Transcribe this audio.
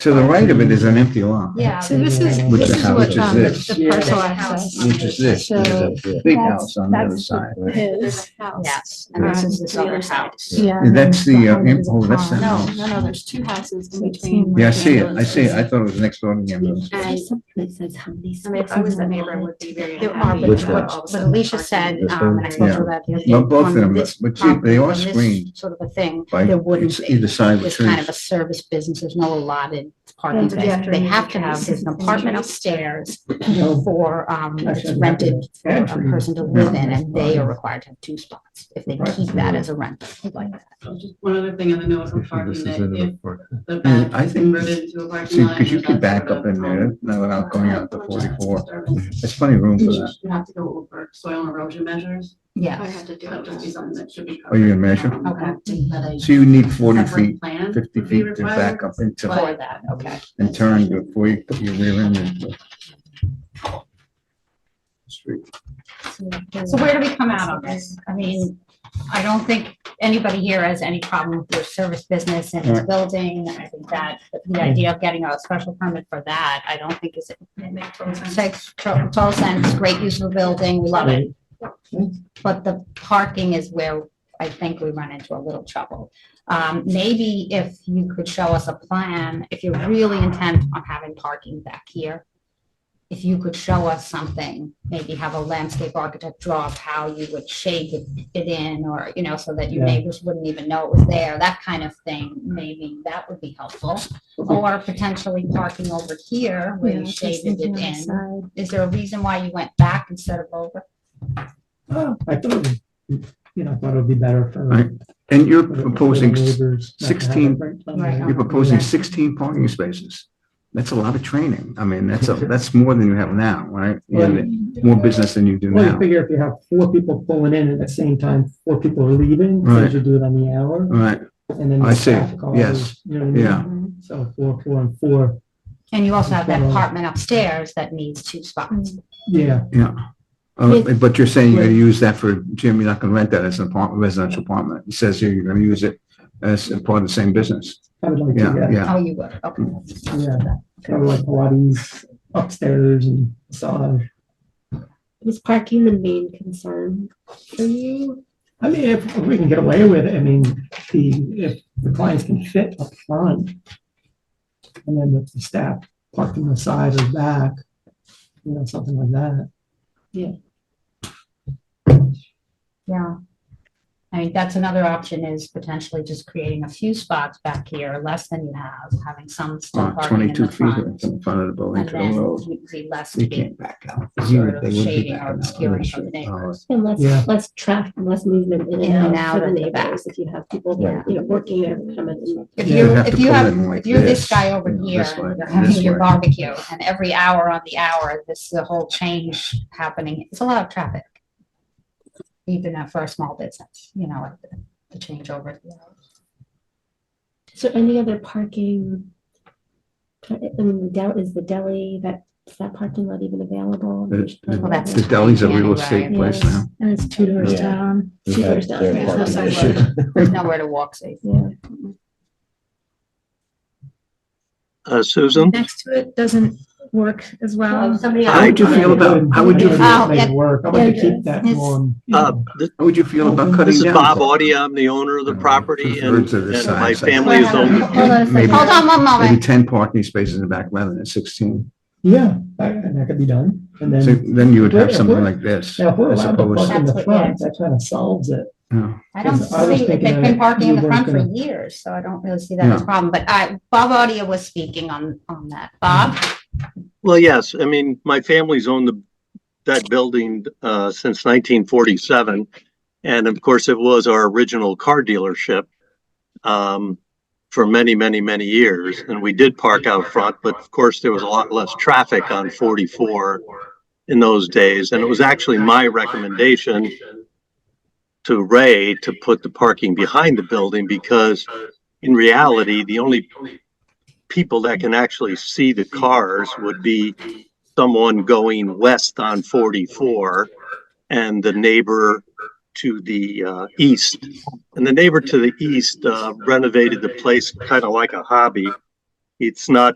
To the right of it is an empty lot. Yeah. So this is, Which this is is how- what, which is um, the this. the parcel Yeah. access. Which is this, So there's a big that's- house on the other that's the- side. right? His house. Yes, and this Right. is this other house. Yeah. Yeah, that's and the, uh, behind im- is a oh, that's pond. the- No, no, no, there's two houses in Sixteen. between. Yeah, I see it, I see it, I thought it was next door to the ambulance. And, I mean, if I was that neighbor, I would be very There are, unhappy. but Which about all of a what what sudden Alicia parking. said, This um, one? and I Yeah. spoke to her about the other day. Well, both of on them, but this but gee, they are property, on this screened Sort of a thing, by, there wouldn't it's be. either side with It's kind of a trees. service business, there's no allotted parking Yeah. space, they have to Yeah. have, there's an apartment upstairs for, um, I it's said rented for a entry. person to live in, and they are required to have two spots, if they Right. keep that as a rental, like that. Just one other thing on the note on parking, that if the back I think, converted into a parking see, lot. because you and could that's back sort up of, in there, um, now without going out to uh, forty-four. disturbance, There's plenty of room for that. You have to go over soil and erosion measures, Yeah. I had to do that would just be it. something that should be Oh, covered. you can measure? Um, Okay. I think that a So you need forty separate feet, plan fifty would be feet to back required. up into, For that, okay. and turn before you put your rear end into. the Street. So where do we come out on this? I mean, I don't think anybody here has any problem with your service business in this building. I think that the idea of getting a special permit for that, I don't think is, It makes total sense. makes to- total sense, great use of the building, we love it. But the parking is where I think we run into a little trouble. Um, maybe if you could show us a plan, if you're really intent on having parking back here, if you could show us something, maybe have a landscape architect draw up how you would shape it it in, or, you know, so that your Yeah. neighbors wouldn't even know it was there, that kind of thing, maybe that would be helpful. Or potentially parking over here where you shaded it in. Is there a reason why you went back instead of over? Oh, I thought, it would- you know, I thought it would be better for. Right. And you're for the- for the proposing, s- neighbors not to have it 16 right on Right the- on you're proposing sixteen parking spaces. That's a lot of training. I mean, that's a, that's more than you have now, right? You have More business than you do Well, you now. figure if you have four people pulling in at the same time, four people are leaving, Right. so you do it on the hour, Right, and then. the I see. staff call Yes. is, You know what I mean? yeah. So four, four, and four, And you also have that Well- apartment upstairs that needs two spots. yeah, Uh, But you're saying you're gonna use that for, Jim, you're not gonna rent that as an apartment, residential apartment. It says here you're gonna use it as a part of the same business. I would like to, Yeah, yeah, yeah. Uh, Oh, you would, okay. yeah, kind of like Pilates upstairs and massage. Was parking the main concern for you? I mean, if if we can get away with it, I mean, the, if the clients can fit up front. And then if the staff parked on the side or back, you know, something like that. Yeah. I mean, that's another option is potentially just creating a few spots back here, less than you have, having some Uh, still parking in Twenty-two the feet front. in front of the building And to the road. then you'd be less You big can't back out. Sort Even if of they wouldn't be shading backing or out, I'm obscuring sure. of the neighbors. And less, Yeah. less traffic, less movement in and out for the of the back. neighbors. If you have people, that, you know, working there, coming in. If Yeah. you, You'd have if to you pull have, in like if you're this this, guy over you know, here, this way, you're and having this your way. barbecue, and every hour on the hour, this, the whole change happening, it's a lot of traffic. Even uh, for a small business, you know, like the- the changeover. Is there any other parking? I mean, the deli, is the deli, that, is that parking lot even available? The- the- Well, that's The deli's a real anyway. estate place now. And it's two doors Yeah. down. Two doors down. There's no sidewalk. There's nowhere to walk safe. Yeah. Uh, Susan, next to it doesn't work as well. Somebody How would you feel about, how would you, I feel- don't how Oh, know, Make yeah. it work, I want to keep that Yes. one. uh, th- would you feel about cutting down? this is Bob parking? Audia. I'm the owner of the property and Two-thirds of the and my size. family is owned. Maybe- Hold on one Maybe moment. ten parking spaces in the back rather than sixteen. Yeah, that- and that could be done, and So then, then you would have Yeah, something yeah. like this. now if we're as allowed to opposed- park in the That's what- front, that kind of solves it. yeah. I don't I was see, they've thinking been that parking in the we front weren't for gonna- years, so I don't really see that as a problem, but I, Bob Audia was speaking on, on that. Bob? Well, yes, I mean, my family's owned the, that building, uh, since nineteen forty-seven. And of course, it was our original car dealership, um, for many, many, many years. And we did park out front, but of course, there was a lot less traffic on forty-four in those days. And it was actually my recommendation to Ray to put the parking behind the building because in reality, the only people that can actually see the cars would be someone going west on 44 and the neighbor to the uh, east. And the neighbor to the east uh, renovated the place kind of like a hobby. It's not